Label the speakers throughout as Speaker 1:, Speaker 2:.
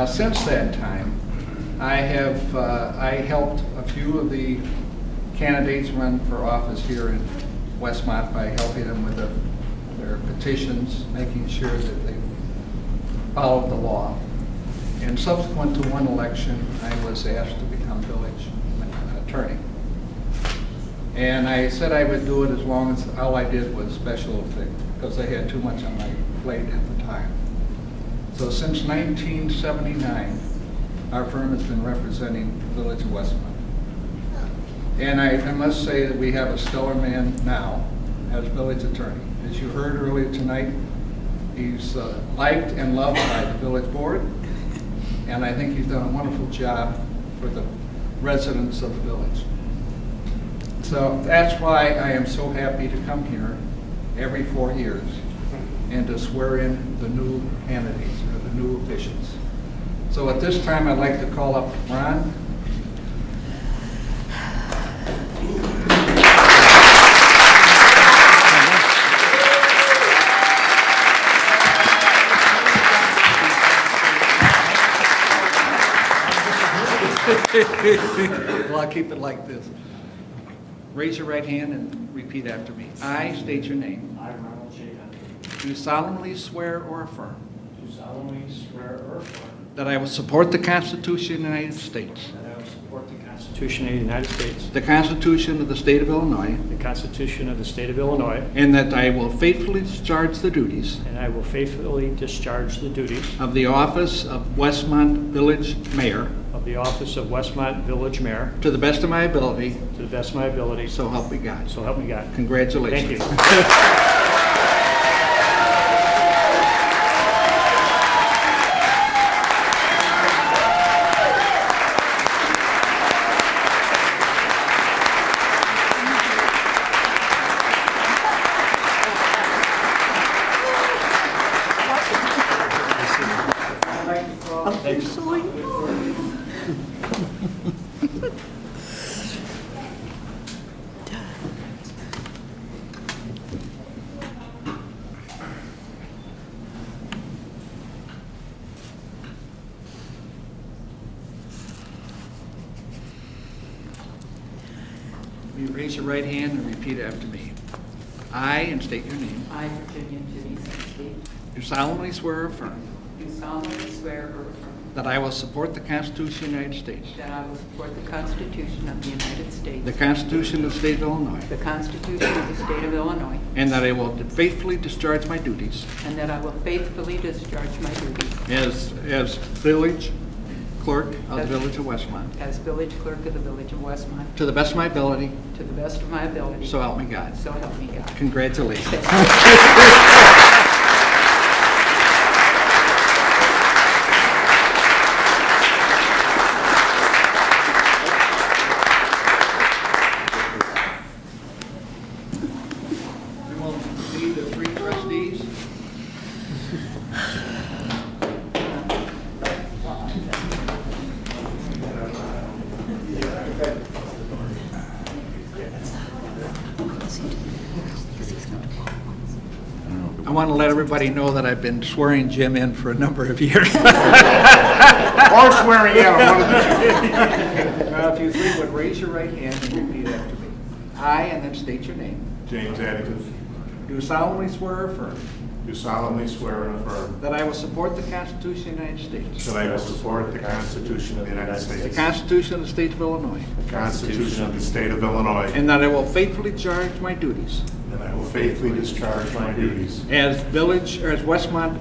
Speaker 1: Uh, Since that time, I have, uh, I helped a few of the candidates run for office here in Westmont by helping them with their- their petitions, making sure that they followed the law. And subsequent to one election, I was asked to become village attorney. And I said I would do it as long as, all I did was special things, because I had too much on my plate at the time. So since 1979, our firm has been representing the Village of Westmont. And I, I must say that we have a stellar man now as village attorney. As you heard earlier tonight, he's uh, liked and loved by the village board, and I think he's done a wonderful job for the residents of the village. So that's why I am so happy to come here every four years and to swear in the new candidates or the new officials. So at this time, I'd like to call up Ron. Well, I'll keep it like this. Raise your right hand and repeat after me. I state your name.
Speaker 2: I, Ronald J. Hunter,
Speaker 1: Do solemnly swear or affirm
Speaker 2: do solemnly swear or affirm
Speaker 1: that I will support the Constitution of the United States,
Speaker 2: that I will support the Constitution of the United States,
Speaker 1: the Constitution of the State of Illinois,
Speaker 2: the Constitution of the State of Illinois,
Speaker 1: and that I will faithfully discharge the duties
Speaker 2: and I will faithfully discharge the duties
Speaker 1: of the office of Westmont Village Mayor
Speaker 2: of the office of Westmont Village Mayor
Speaker 1: to the best of my ability,
Speaker 2: to the best of my ability,
Speaker 1: so help me God.
Speaker 2: so help me God.
Speaker 1: Congratulations.
Speaker 2: Thank you.
Speaker 3: officially.
Speaker 1: You raise your right hand and repeat after me. I, and state your name,
Speaker 4: I, Virginia Jennings Sinsky,
Speaker 1: do solemnly swear or affirm
Speaker 4: do solemnly swear or affirm
Speaker 1: that I will support the Constitution of the United States,
Speaker 4: that I will support the Constitution of the United States,
Speaker 1: the Constitution of the State of Illinois,
Speaker 4: the Constitution of the State of Illinois,
Speaker 1: and that I will faithfully discharge my duties
Speaker 4: and that I will faithfully discharge my duties
Speaker 1: as, as village clerk of the Village of Westmont,
Speaker 4: as village clerk of the Village of Westmont
Speaker 1: to the best of my ability,
Speaker 4: to the best of my ability.
Speaker 1: so help me God.
Speaker 4: So help me God.
Speaker 1: Congratulations. We will need the three trustees. I want to let everybody know that I've been swearing Jim in for a number of years.
Speaker 5: Or swearing out, one of the two.
Speaker 1: Now, if you three would raise your right hand and repeat after me. I, and then state your name,
Speaker 5: James Atticus,
Speaker 1: do solemnly swear or affirm
Speaker 5: do solemnly swear and affirm
Speaker 1: that I will support the Constitution of the United States,
Speaker 5: that I will support the Constitution of the United
Speaker 1: the
Speaker 5: States, the
Speaker 1: Constitution of the State of Illinois,
Speaker 5: Constitution of the State of Illinois,
Speaker 1: and that I will faithfully discharge my duties
Speaker 5: and I will faithfully discharge my duties
Speaker 1: as village, or as Westmont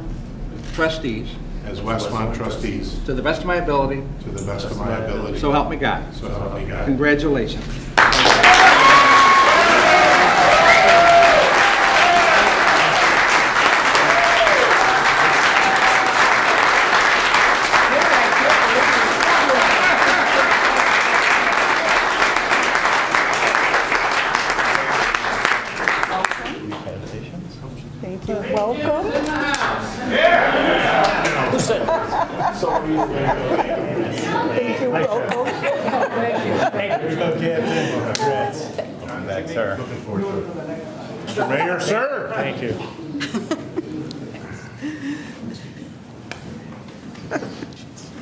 Speaker 1: trustees,
Speaker 5: as Westmont trustees
Speaker 1: to the best of my ability,
Speaker 5: to the best of my ability.
Speaker 1: so help me God.
Speaker 5: So help me God.
Speaker 1: Congratulations.
Speaker 3: Thank you. Welcome. Thank you. Welcome.
Speaker 6: Thanks, sir.
Speaker 5: Mr. Mayor, sir.
Speaker 2: Thank you.